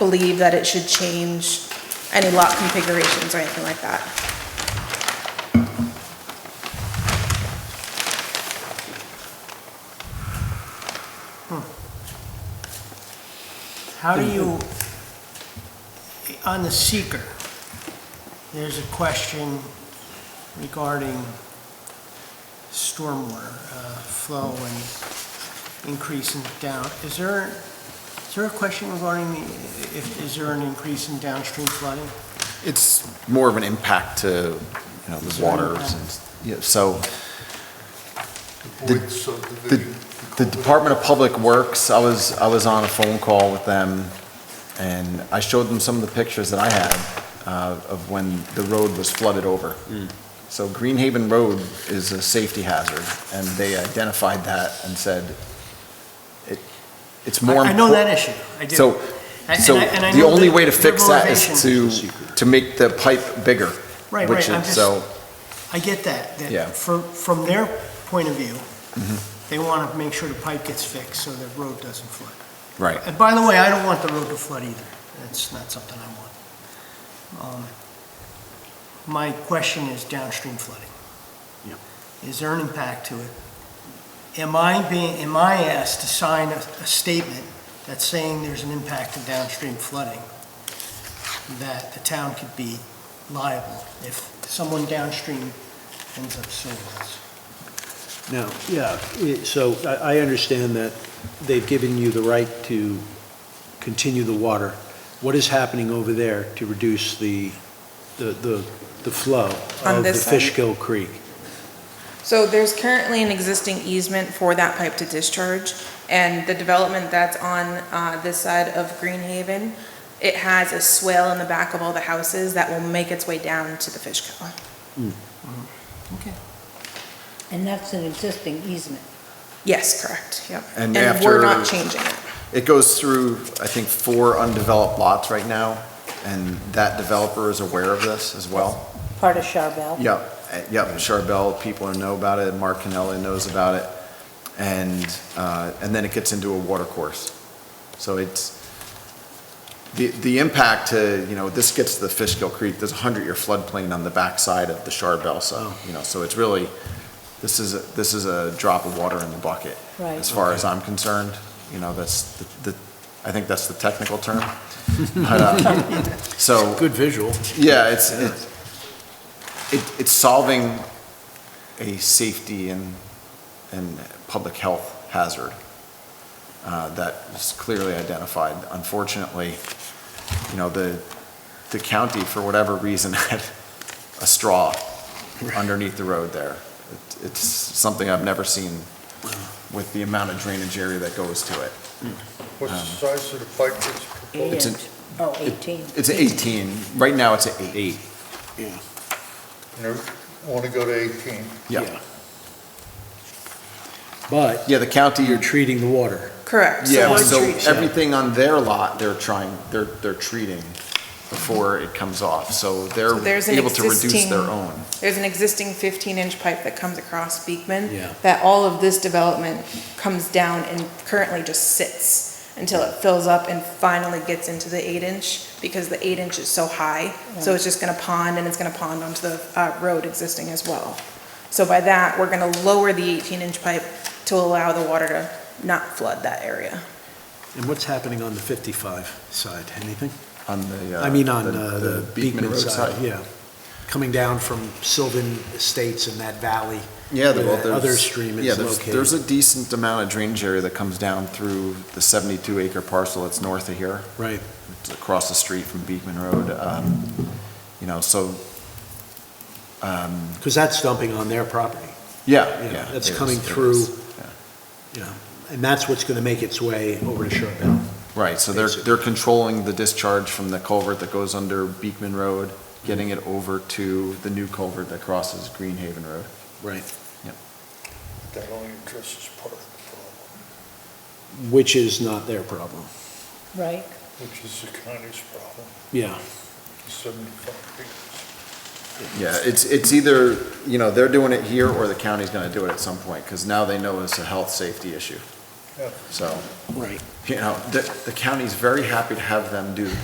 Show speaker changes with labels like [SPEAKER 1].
[SPEAKER 1] believe that it should change any lot configurations or anything like that.
[SPEAKER 2] How do you, on the seeker, there's a question regarding stormwater uh, flow and increase in down, is there, is there a question regarding the, if, is there an increase in downstream flooding?
[SPEAKER 3] It's more of an impact to, you know, the waters and, yeah, so The-
[SPEAKER 4] Boyd subdivision.
[SPEAKER 3] the Department of Public Works, I was, I was on a phone call with them and I showed them some of the pictures that I had uh, of when the road was flooded over.
[SPEAKER 2] Mm.
[SPEAKER 3] So Greenhaven Road is a safety hazard and they identified that and said it, it's more.
[SPEAKER 2] I I know
[SPEAKER 3] impor-
[SPEAKER 2] that issue, I do.
[SPEAKER 3] So
[SPEAKER 2] And-
[SPEAKER 3] So
[SPEAKER 2] and I- and I
[SPEAKER 3] the
[SPEAKER 2] know
[SPEAKER 3] only
[SPEAKER 2] that
[SPEAKER 3] way to
[SPEAKER 2] their
[SPEAKER 3] fix that is
[SPEAKER 2] motivation-
[SPEAKER 3] to, to make the pipe bigger.
[SPEAKER 2] Right,
[SPEAKER 3] which
[SPEAKER 2] right, I'm just-
[SPEAKER 3] is- So,
[SPEAKER 2] I get that,
[SPEAKER 3] Yeah.
[SPEAKER 2] that from, from their point of view, they want to make sure the pipe gets fixed so the road doesn't flood.
[SPEAKER 3] right,
[SPEAKER 2] And by the way, I don't want the road to flood either. That's not something I want. Um, My question is downstream flooding. Is there an impact to it? Am I being, am I asked to sign a, a statement that's saying there's an impact to downstream flooding? That the town could be liable if someone downstream ends up suing us?
[SPEAKER 5] Now, yeah, i- so I, I understand that they've given you the right to continue the water. What is happening over there to reduce the, the, the the flow
[SPEAKER 1] On
[SPEAKER 5] of the
[SPEAKER 1] this side.
[SPEAKER 5] Fishkill Creek?
[SPEAKER 1] So there's currently an existing easement for that pipe to discharge, and the development that's on uh, this side of Greenhaven, it has a swale in the back of all the houses that will make its way down to the fish kennel.
[SPEAKER 2] Okay.
[SPEAKER 6] And that's an existing easement.
[SPEAKER 1] Yes, correct, yep.
[SPEAKER 3] And
[SPEAKER 1] we're
[SPEAKER 3] after-
[SPEAKER 1] not changing it.
[SPEAKER 3] it goes through, I think, four undeveloped lots right now, and that developer is aware of this as well.
[SPEAKER 6] Part of Charbel.
[SPEAKER 3] Yep, uh, yep, Charbel, people know about it, Mark Canella knows about it, and, uh, and then it gets into a water course. So it's, the, the impact to, you know, this gets to the Fishkill Creek, there's a hundred-year floodplain on the backside of the Charbel, so,
[SPEAKER 6] Oh.
[SPEAKER 3] you know, so it's really, this is, a- this is a drop of water in the bucket.
[SPEAKER 6] Right.
[SPEAKER 3] As far as I'm concerned, you know, that's the, the- I think that's the technical term. But, uh, So.
[SPEAKER 5] Good visual.
[SPEAKER 3] Yeah, it's, it- it, it's solving a safety and, and public health hazard uh, that is clearly identified. Unfortunately, you know, the, the county, for whatever reason, had a straw underneath the road there. It- It's something I've never seen with the amount of drainage area that goes to it.
[SPEAKER 4] What's the size of the pipe that's
[SPEAKER 6] Eight
[SPEAKER 4] proposed?
[SPEAKER 3] It's an-
[SPEAKER 6] inch. Oh, 18.
[SPEAKER 3] It's an 18, right now it's an eight.
[SPEAKER 4] You want to go to 18?
[SPEAKER 3] Yeah,
[SPEAKER 5] But
[SPEAKER 3] yeah, the county,
[SPEAKER 5] you're treating the water.
[SPEAKER 1] Correct. So
[SPEAKER 3] Yeah,
[SPEAKER 1] we're-
[SPEAKER 3] so
[SPEAKER 5] treat-
[SPEAKER 3] everything on their lot, they're trying, they're, they're treating before it comes off, so they're
[SPEAKER 1] So there's an
[SPEAKER 3] able to reduce
[SPEAKER 1] existing-
[SPEAKER 3] their own.
[SPEAKER 1] There's an existing 15-inch pipe that comes across Beekman.
[SPEAKER 5] Yeah.
[SPEAKER 1] That all of this development comes down and currently just sits until it fills up and finally gets into the 8-inch because the 8-inch is so high. So it's just going to pond and it's going to pond onto the uh, road existing as well. So by that, we're going to lower the 18-inch pipe to allow the water to not flood that area.
[SPEAKER 5] And what's happening on the 55 side? Anything?
[SPEAKER 3] On the, uh,
[SPEAKER 5] I mean, on
[SPEAKER 3] the-
[SPEAKER 5] uh, the
[SPEAKER 3] the
[SPEAKER 5] Beekman
[SPEAKER 3] Road
[SPEAKER 5] side, yeah. Coming down from Sylvan Estates in that valley.
[SPEAKER 3] Yeah,
[SPEAKER 5] where
[SPEAKER 3] well,
[SPEAKER 5] that
[SPEAKER 3] there's.
[SPEAKER 5] Other stream
[SPEAKER 3] yeah,
[SPEAKER 5] is
[SPEAKER 3] there's-
[SPEAKER 5] located.
[SPEAKER 3] There's a decent amount of drainage area that comes down through the seventy-two acre parcel that's north of here.
[SPEAKER 5] Right.
[SPEAKER 3] It's across the street from Beekman Road, um, you know, so, um,
[SPEAKER 5] Because that's dumping on their property.
[SPEAKER 3] yeah,
[SPEAKER 5] Yeah,
[SPEAKER 3] yeah.
[SPEAKER 5] that's
[SPEAKER 3] it is,
[SPEAKER 5] coming
[SPEAKER 3] it
[SPEAKER 5] through.
[SPEAKER 3] is, yeah.
[SPEAKER 5] Yeah, and that's what's going to make its way over to Sherbell.
[SPEAKER 3] Right, so they're,
[SPEAKER 5] Basically.
[SPEAKER 3] they're controlling the discharge from the culvert that goes under Beekman Road, getting it over to the new culvert that crosses Greenhaven Road.
[SPEAKER 5] Right.
[SPEAKER 4] That only addresses part of the problem,
[SPEAKER 5] Which is not their problem.
[SPEAKER 6] Right.
[SPEAKER 4] which is the county's problem,
[SPEAKER 5] Yeah.
[SPEAKER 4] 75 acres.
[SPEAKER 3] Yeah, it's, it's either, you know, they're doing it here or the county's gonna do it at some point, because now they know it's a health, safety issue.
[SPEAKER 4] Yeah.
[SPEAKER 3] So,
[SPEAKER 5] Right.
[SPEAKER 3] you know, the, the county's very happy to have them do